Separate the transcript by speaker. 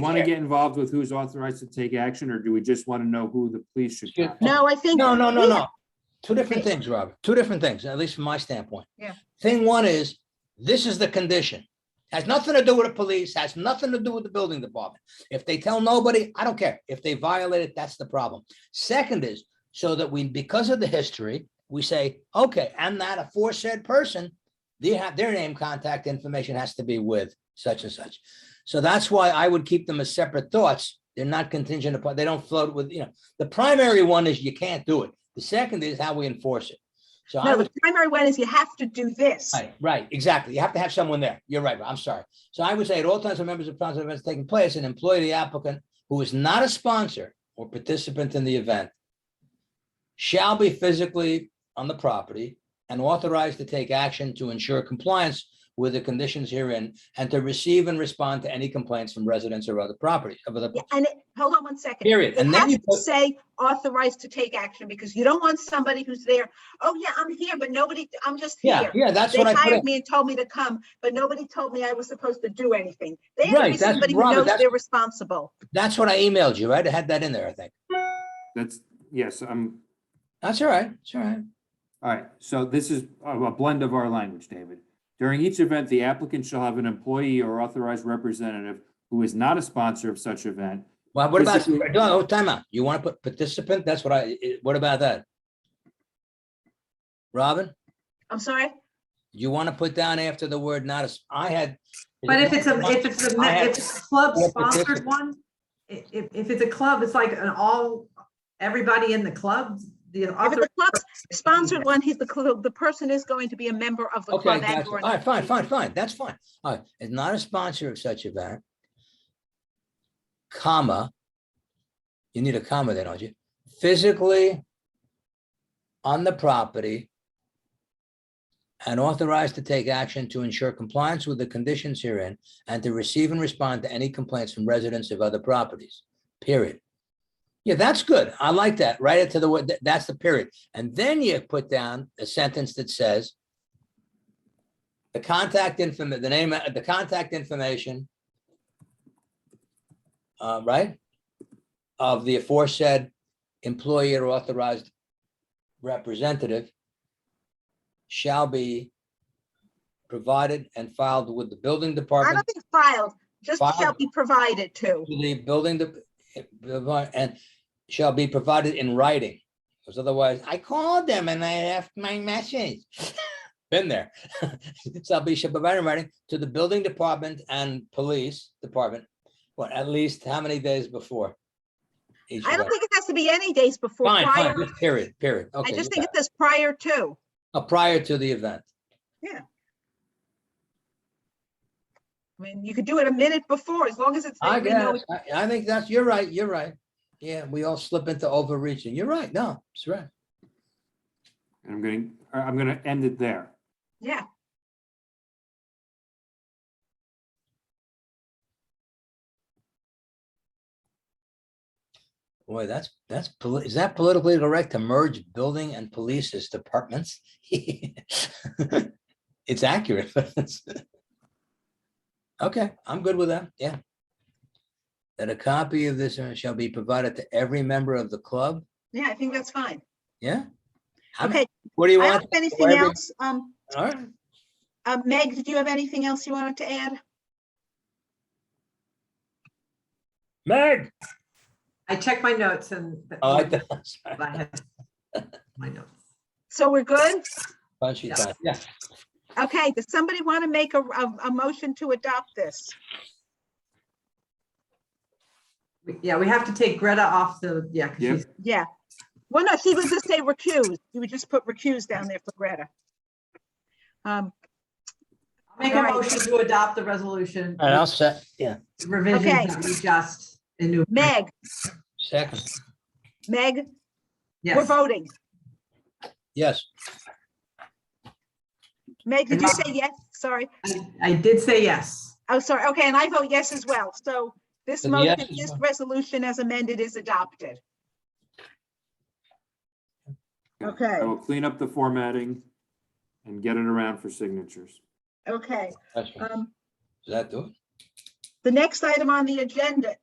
Speaker 1: Want to
Speaker 2: Yeah.
Speaker 1: get involved with who's authorized to take action, or do we just want to know who the police should?
Speaker 2: Should-
Speaker 1: contact?
Speaker 3: No, I think.
Speaker 2: No, no, no,
Speaker 3: we-
Speaker 2: no. Two different things, Robert. Two different things, at least from my standpoint.
Speaker 3: Yeah.
Speaker 2: Thing one is, this is the condition. Has nothing to do with the police, has nothing to do with the building department. If they tell nobody, I don't care. If they violate it, that's the problem. Second is, so that we, because of the history, we say, okay, I'm not a foresaid person. They have, their name, contact information has to be with such and such. So that's why I would keep them as separate thoughts. They're not contingent upon, they don't float with, you know, the primary one is you can't do it. The second is how we enforce it. So I
Speaker 3: No,
Speaker 2: would,
Speaker 3: the primary one is you have to do this.
Speaker 2: right, right, exactly. You have to have someone there. You're right. I'm sorry. So I would say at all times when members of council events taking place, an employee of the applicant who is not a sponsor or participant in the event shall be physically on the property and authorized to take action to ensure compliance with the conditions herein and to receive and respond to any complaints from residents or other property of other
Speaker 3: Yeah, And it, hold on one second.
Speaker 2: period.
Speaker 3: It
Speaker 2: And then
Speaker 3: has
Speaker 2: you
Speaker 3: to
Speaker 2: put-
Speaker 3: say authorized to take action because you don't want somebody who's there, oh yeah, I'm here, but nobody, I'm just
Speaker 2: Yeah,
Speaker 3: here.
Speaker 2: yeah, that's
Speaker 3: They
Speaker 2: what I put in.
Speaker 3: hired me and told me to come, but nobody told me I was supposed to do anything. They have to
Speaker 2: Right,
Speaker 3: be
Speaker 2: that's-
Speaker 3: somebody who
Speaker 2: Robert,
Speaker 3: knows
Speaker 2: that's-
Speaker 3: they're responsible.
Speaker 2: That's what I emailed you, right? I had that in there, I think.
Speaker 1: That's, yes, I'm,
Speaker 2: That's all right. It's all right.
Speaker 1: all right, so this is a a blend of our language, David. During each event, the applicant shall have an employee or authorized representative who is not a sponsor of such event.
Speaker 2: Well, what about,
Speaker 1: Basically-
Speaker 2: no, time out. You want to put participant? That's what I, i- what about that? Robin,
Speaker 3: I'm sorry?
Speaker 2: you want to put down after the word not as, I had.
Speaker 4: But if it's a, if it's a,
Speaker 2: I
Speaker 4: if
Speaker 2: have-
Speaker 4: it's a club
Speaker 2: I have
Speaker 4: sponsored
Speaker 2: participants.
Speaker 4: one, i- if, if it's a club, it's like an all, everybody in the club, the
Speaker 3: If
Speaker 4: author.
Speaker 3: the club's sponsored one, he's the, cl- the person is going to be a member of the
Speaker 2: Okay,
Speaker 3: club.
Speaker 2: gotcha.
Speaker 3: and/or
Speaker 2: All
Speaker 3: an
Speaker 2: right, fine, fine,
Speaker 3: association.
Speaker 2: fine. That's fine. All right, is not a sponsor of such event. Comma. You need a comma there, don't you? Physically on the property and authorized to take action to ensure compliance with the conditions herein and to receive and respond to any complaints from residents of other properties, period. Yeah, that's good. I like that. Write it to the, wo- th- that's the period. And then you put down a sentence that says, the contact inform, the name, uh, the contact information. Uh, right? Of the aforesaid employee or authorized representative. Shall be. Provided and filed with the building
Speaker 3: I
Speaker 2: department,
Speaker 3: don't think filed, just shall
Speaker 2: Filed.
Speaker 3: be provided to.
Speaker 2: to the building, de- eh, provi- and shall be provided in writing. Because otherwise, I called them and I left my message. Been there. Shall be should provide in writing to the building department and police department. What, at least how many days before? each
Speaker 3: I don't
Speaker 2: event?
Speaker 3: think it has to be any days before
Speaker 2: Fine, fine,
Speaker 3: prior.
Speaker 2: just period, period.
Speaker 3: I
Speaker 2: Okay,
Speaker 3: just
Speaker 2: yeah.
Speaker 3: think it says prior to.
Speaker 2: Uh, prior to the event.
Speaker 3: I mean, you could do it a minute before, as long as it's.
Speaker 2: I
Speaker 3: we know
Speaker 2: guess, I, I think that's, you're right, you're right. Yeah, we all slip into overreaching. You're right. No, it's right.
Speaker 1: And I'm going, to I'm going to end it there.
Speaker 3: Yeah,
Speaker 2: Boy, that's, that's, poli- is that politically correct to merge building and police as departments? It's accurate. but it's- Okay, I'm good with that, yeah. That a copy of this uh, shall be provided to every member of the club,
Speaker 3: yeah, I think that's fine.
Speaker 2: yeah? I'm-
Speaker 3: Okay,
Speaker 2: What do you
Speaker 3: I don't
Speaker 2: want?
Speaker 3: have anything
Speaker 2: whatever-
Speaker 3: else. Um,
Speaker 2: All right,
Speaker 3: uh, Meg, did you have anything else you wanted to add?
Speaker 2: Meg.
Speaker 4: I checked my notes and. but-
Speaker 2: Oh, I thought- sorry.
Speaker 4: I had My notes.
Speaker 3: So we're good?
Speaker 2: Punchy
Speaker 4: Yeah.
Speaker 2: time, yeah.
Speaker 3: Okay, does somebody want to make a, a, a motion to adopt this?
Speaker 4: We- Yeah, we have to take Greta off the, yeah, 'cause
Speaker 1: Yep.
Speaker 4: she's,
Speaker 3: Yeah. Well, no, she would just say recuse. You would just put recuse down there for Greta. Um,
Speaker 4: make a
Speaker 3: Alright.
Speaker 4: motion to adopt the resolution.
Speaker 2: And I'll set, yeah,
Speaker 4: Revisions
Speaker 3: Okay.
Speaker 4: that we just. enumerated.
Speaker 3: Meg,
Speaker 2: second,
Speaker 3: Meg, we're
Speaker 4: Yes.
Speaker 3: voting.
Speaker 2: yes.
Speaker 3: Meg, did you say yes? Sorry.
Speaker 4: I- I did say yes.
Speaker 3: Oh, sorry. Okay, and I vote yes as well. So this
Speaker 2: And the yes
Speaker 3: motion,
Speaker 2: is
Speaker 3: this
Speaker 2: what?
Speaker 3: resolution as amended is adopted. Okay,
Speaker 1: I will clean up the formatting and get it around for signatures.
Speaker 3: okay.
Speaker 2: That's right.
Speaker 3: Um,
Speaker 2: Does that do it?
Speaker 3: The next item on the agenda